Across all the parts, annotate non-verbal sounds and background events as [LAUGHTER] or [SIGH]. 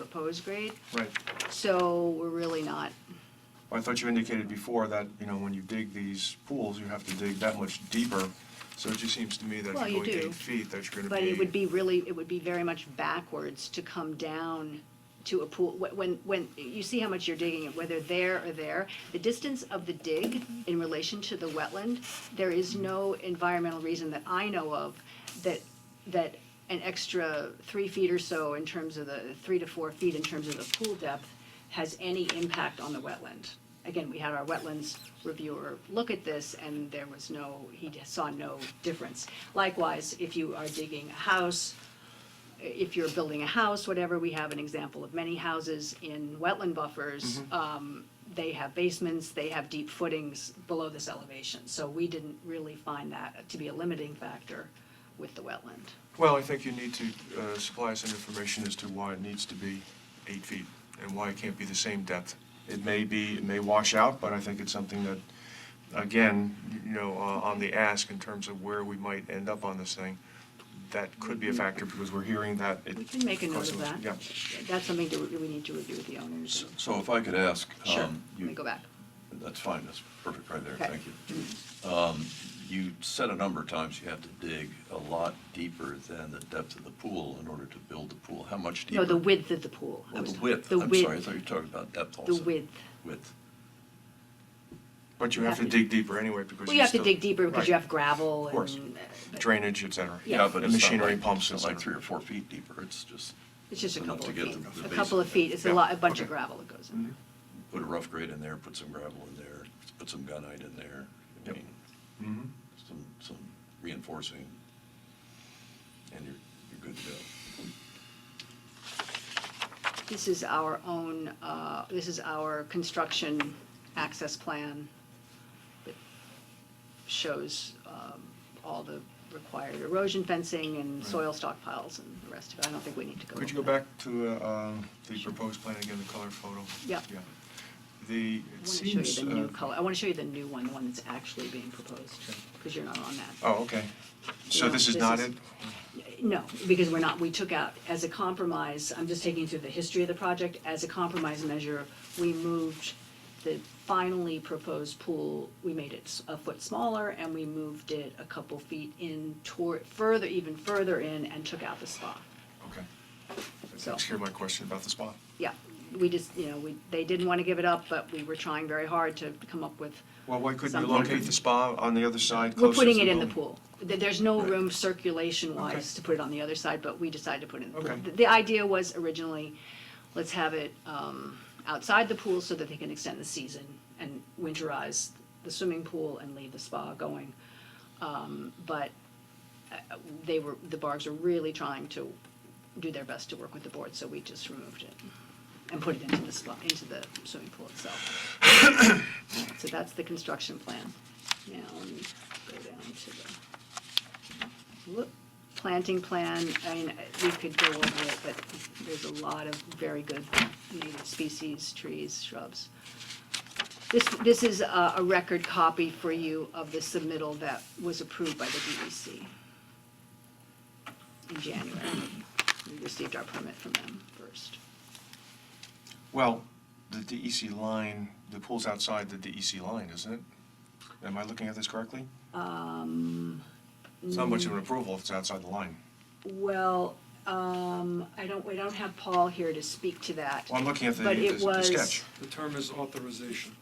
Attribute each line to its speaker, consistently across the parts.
Speaker 1: proposed grade,
Speaker 2: Right.
Speaker 1: so we're really not.
Speaker 2: I thought you indicated before that, you know, when you dig these pools, you have to dig that much deeper. So it just seems to me that
Speaker 1: Well,
Speaker 2: if
Speaker 1: you
Speaker 2: you're going
Speaker 1: do.
Speaker 2: eight feet, that you're gonna be.
Speaker 1: But it would be really, it would be very much backwards to come down to a pool, Wh- when, when, you see how much you're digging, whether there or there. The distance of the dig in relation to the wetland, there is no environmental reason that I know of that, that an extra three feet or so in terms of the, three to four feet in terms of the pool depth has any impact on the wetland. Again, we had our wetlands reviewer look at this, and there was no, he saw no difference. Likewise, if you are digging a house, if you're building a house, whatever, we have an example of many houses in wetland buffers. Um, They have basements, they have deep footings below this elevation, so we didn't really find that to be a limiting factor with the wetland.
Speaker 2: Well, I think you need to uh, supply some information as to why it needs to be eight feet and why it can't be the same depth. It may be, it may wash out, but I think it's something that, again, you know, uh, on the ask in terms of where we might end up on this thing, that could be a factor because we're hearing that. it
Speaker 1: Mm-hmm. We can make a note
Speaker 2: causes-
Speaker 1: of that.
Speaker 2: Yeah.
Speaker 1: That's something that we we need to review with the owners.
Speaker 3: So if I could ask,
Speaker 1: Sure,
Speaker 3: um,
Speaker 1: let
Speaker 3: you-
Speaker 1: me go back.
Speaker 3: That's fine, that's perfect right there,
Speaker 1: Okay. Mm-hmm.
Speaker 3: thank you. Um, You said a number of times you have to dig a lot deeper than the depth of the pool in order to build the pool. How much deeper?
Speaker 1: No, the width of the pool. I
Speaker 3: Oh,
Speaker 1: was-
Speaker 3: the width,
Speaker 1: The
Speaker 3: I'm sorry, I
Speaker 1: width,
Speaker 3: thought you were talking about depth
Speaker 1: the
Speaker 3: also.
Speaker 1: width.
Speaker 3: Width.
Speaker 2: But you have to dig deeper anyway because.
Speaker 1: Well, you have to
Speaker 2: still-
Speaker 1: dig deeper because you
Speaker 2: Right.
Speaker 1: have gravel
Speaker 2: Of course.
Speaker 1: and, uh, but
Speaker 2: Drainage, et cetera.
Speaker 1: Yeah.
Speaker 2: And
Speaker 3: but it's not
Speaker 2: machinery
Speaker 3: like-
Speaker 2: pumps,
Speaker 3: It's not
Speaker 2: et
Speaker 3: like
Speaker 2: cetera.
Speaker 3: three or four feet deeper, it's just,
Speaker 1: it's just a
Speaker 3: enough
Speaker 1: couple
Speaker 3: to
Speaker 1: of
Speaker 3: get
Speaker 1: feet.
Speaker 3: the- the
Speaker 1: A couple of
Speaker 3: basic-
Speaker 1: feet, it's a
Speaker 2: Yeah,
Speaker 1: lot, a bunch of
Speaker 2: okay.
Speaker 1: gravel that goes in there.
Speaker 3: put a rough grade in there, put some gravel in there, put some gunite in there. I
Speaker 2: Yep.
Speaker 3: mean,
Speaker 2: Mhm.
Speaker 3: some, some reinforcing, and you're, you're good to go.
Speaker 2: Mm-hmm.
Speaker 1: This is our own, uh, this is our construction access plan that shows um, all the required erosion fencing and soil stockpiles and the rest of it. I don't think we need to go.
Speaker 2: Could you go
Speaker 1: over
Speaker 2: back
Speaker 1: that.
Speaker 2: to uh, um, the proposed plan again, the color photo?
Speaker 1: Yeah.
Speaker 2: Yeah. The,
Speaker 1: I
Speaker 2: it
Speaker 1: want to
Speaker 2: seems.
Speaker 1: show you the new
Speaker 2: uh,
Speaker 1: color, I want to show you the new one, the one that's actually being proposed, because you're not on that.
Speaker 2: Oh, okay. So
Speaker 1: No,
Speaker 2: this is
Speaker 1: this
Speaker 2: not
Speaker 1: is-
Speaker 2: it?
Speaker 1: No, because we're not, we took out, as a compromise, I'm just taking you through the history of the project, as a compromise measure, we moved the finally proposed pool, we made it s- a foot smaller, and we moved it a couple feet in toward, further, even further in, and took out the spa.
Speaker 2: Okay. That
Speaker 1: So-
Speaker 2: takes care of my question about the spa.
Speaker 1: Yeah, we just, you know, we, they didn't want to give it up, but we were trying very hard to come up with
Speaker 2: Well, why couldn't you
Speaker 1: Something.
Speaker 2: locate the spa on the other side
Speaker 1: We're
Speaker 2: closer to the
Speaker 1: putting it in the
Speaker 2: building?
Speaker 1: pool. There- There's no
Speaker 3: Right.
Speaker 1: room circulation-wise
Speaker 2: Okay.
Speaker 1: to put it on the other side, but we decided to put it in the pool.
Speaker 2: Okay.
Speaker 1: The- The idea was originally, let's have it um, outside the pool so that they can extend the season and winterize the swimming pool and leave the spa going. Um, But uh, they were, the Bargs were really trying to do their best to work with the board, so we just removed it and put it into the spa, into the swimming pool itself. [COUGHS] So that's the construction plan. Now, let me go down to the, whoop, planting plan, I mean, we could go over it, but there's a lot of very good native species, trees, shrubs. This, this is a, a record copy for you of the submittal that was approved by the DEC in January. We received our permit from them first.
Speaker 2: Well, the DEC line, the pool's outside the DEC line, isn't it? Am I looking at this correctly?
Speaker 1: Um, mm.
Speaker 2: It's not much of an approval if it's outside the line.
Speaker 1: Well, um, I don't, we don't have Paul here to speak to that.
Speaker 2: Well, I'm looking at the,
Speaker 1: But it
Speaker 2: the the
Speaker 1: was-
Speaker 2: sketch.
Speaker 4: The term is authorization.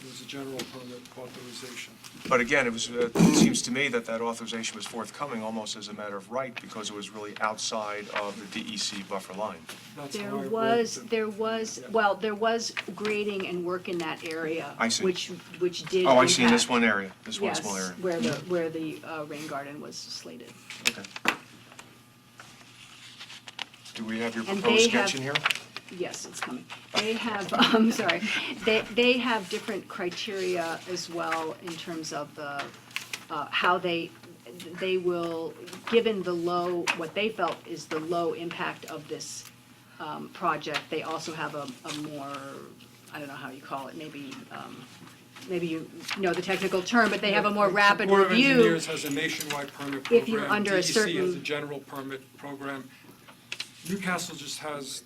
Speaker 4: It was a general permit authorization.
Speaker 2: But again, it was, uh, it seems to me that that authorization was forthcoming almost as a matter of right because it was really outside of the DEC buffer line.
Speaker 4: That's how I
Speaker 1: There
Speaker 4: read
Speaker 1: was,
Speaker 4: the-
Speaker 1: there was,
Speaker 4: Yeah.
Speaker 1: well, there was grading and work in that area.
Speaker 2: I see.
Speaker 1: Which, which did.
Speaker 2: Oh, I see, in this
Speaker 1: impact-
Speaker 2: one area, this one small
Speaker 1: Yes,
Speaker 2: area.
Speaker 1: where the, where the uh, rain garden was slated.
Speaker 2: Okay. Do we have your
Speaker 1: And
Speaker 2: proposed
Speaker 1: they
Speaker 2: sketch
Speaker 1: have-
Speaker 2: in here?
Speaker 1: Yes, it's coming. They have, [LAUGHS] I'm sorry, they, they have different criteria as well in terms of the, uh, how they, they will, given the low, what they felt is the low impact of this um, project, they also have a, a more, I don't know how you call it, maybe, um, maybe you know the technical term, but they have a more rapid
Speaker 4: The Board of
Speaker 1: review.
Speaker 4: Engineers has a nationwide permit program. E
Speaker 1: If you're under a
Speaker 4: DEC has a
Speaker 1: certain-
Speaker 4: general permit program. Newcastle just has